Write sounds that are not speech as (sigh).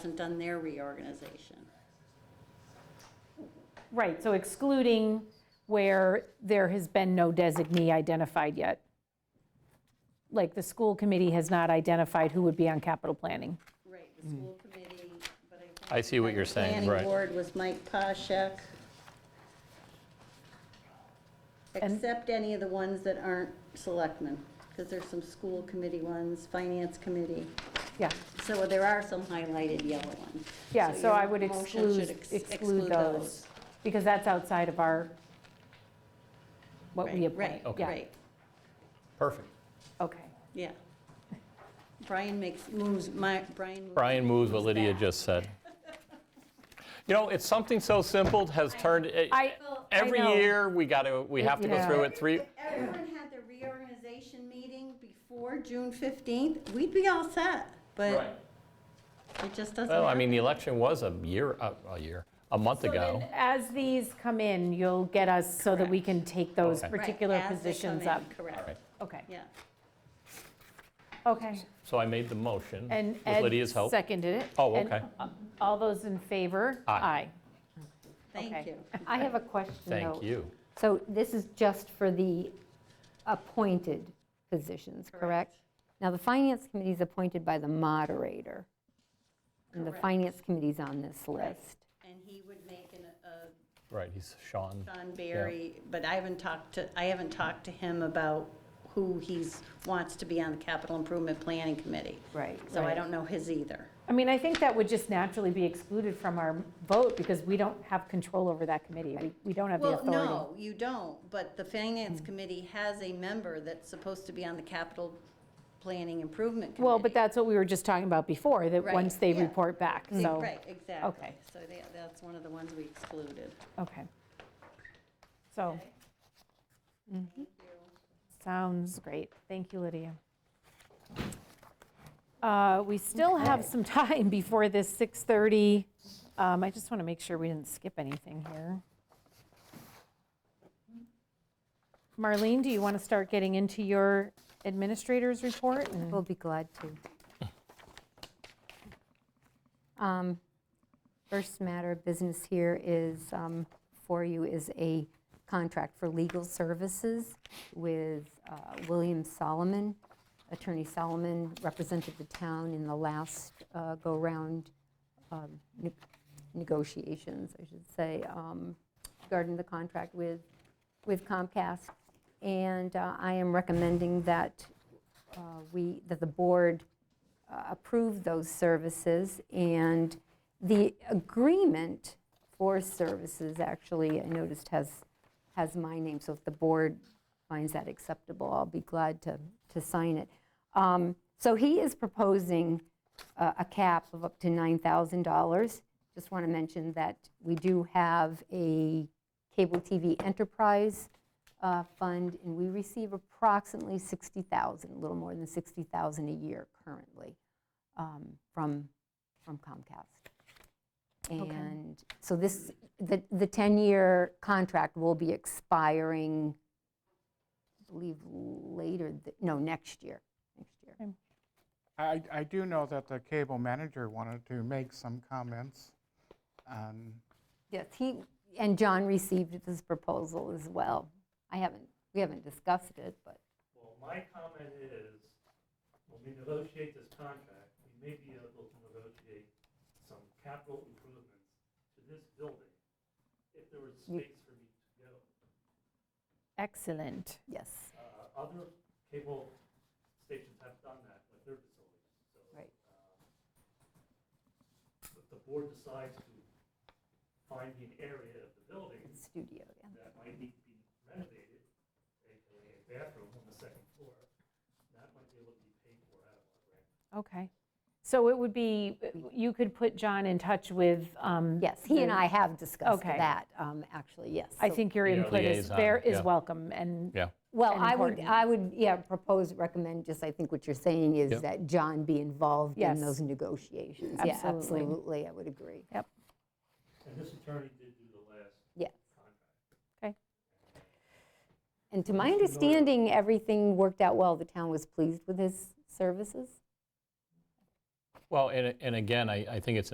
hasn't done their reorganization. Right, so excluding where there has been no designee identified yet. Like, the school committee has not identified who would be on capital planning. Right, the school committee, but I think. I see what you're saying, Planning right. board was Mike Poshak. Except any of the ones that aren't selectmen, because there's some school committee ones, finance committee. Yeah, So there are some highlighted yellow ones. yeah, so your I would motion should exclude, ex- exclude those, because that's outside of our, what Right, we appoint. right, yeah, right, Perfect. Okay, yeah. Brian makes, moves, my, Brian. moves- Brian moves what Lydia just said. You know, it's something so simple has turned, it- I- I every know. year, we got to, we have to go Yeah. through it three, Everyone had their reorganization meeting before June 15th, we'd be all set, but it just doesn't well, I happen. mean, the election was a year, a- a year, a month So ago. then, as these come in, you'll get us so that we can take those Okay. Right, particular as they come positions in, up. Correct, right. Okay, yeah. okay. So I made the motion And with Ed Lydia's help. seconded it. Oh, And, okay. uh, All those in favor? Aye. Thank Okay. you. I have a question, though. Thank you. So this is just for the appointed positions, correct? Now, the Finance Committee is appointed by the moderator, and the Correct. Finance Committee's on this list. And he would make an, a Right, he's Sean. Don Barry, but I haven't talked to, I haven't talked to him about who he's, wants to be on the Capital Improvement Planning Committee. Right, So I right. don't know his either. I mean, I think that would just naturally be excluded from our vote because we don't have control over that committee. We we don't have the Well, authority. no, you don't, but the Finance Committee has a member that's supposed to be on the Capital Planning Improvement Committee. Well, but that's what we were just talking about before, that Right, once they yeah. report back, so. Right, exactly. Okay. So that- that's one of the ones we excluded. Okay. So. Mm-hmm. Sounds great. Thank you, Lydia. Uh, We still have some (laughs) time before this 6:30. Um, I just want to make sure we didn't skip anything here. Marlene, do you want to start getting into your administrator's report? and- We'll be glad to. Um, First matter of business here is, um, for you, is a contract for legal services with uh, William Solomon. Attorney Solomon represented the town in the last uh, go-round um, ne- negotiations, I should say, um, regarding the contract with with Comcast. And uh, I am recommending that uh, we, that the board uh, approve those services, and the agreement for services, actually, I noticed has, has my name, so if the board finds that acceptable, I'll be glad to, to sign it. Um, So he is proposing uh, a a cap of up to $9,000. Just want to mention that we do have a cable TV enterprise uh, fund, and we receive approximately 60,000, a little more than 60,000 a year currently um, from, from Comcast. And so this, the, the 10-year contract will be expiring, I believe, later, th- no, next year, next year. I, I do know that the cable manager wanted to make some comments on, Yes, he, and John received this proposal as well. I haven't, we haven't discussed it, but Well, my comment is, when we negotiate this contract, we may be able to negotiate some capital improvements to this building if there was space for me to go. Excellent. yes, Uh, Other cable stations have done that with their facilities, so. Right. um, If the board decides to find an area of the building studio, yeah. that might need to be renovated, aka a bathroom on the second floor, that might be able to be paid for out of our grant. Okay. So it would be, you could put John in touch with. um, Yes, he and the- I have discussed Okay. that, um, actually, yes. I So- think your Yeah, input is liaison, fair, is yeah. welcome, and Yeah, Well, I would, important. I would, yeah, propose, recommend, just I think what you're saying Yep. is that John be involved Yes. in those negotiations. Yeah, Absolutely. Absolutely, I would agree, And this attorney did do the last yeah. contract. And to my understanding, everything worked out well. The town was pleased with his services. well, and, and again, I, I think it's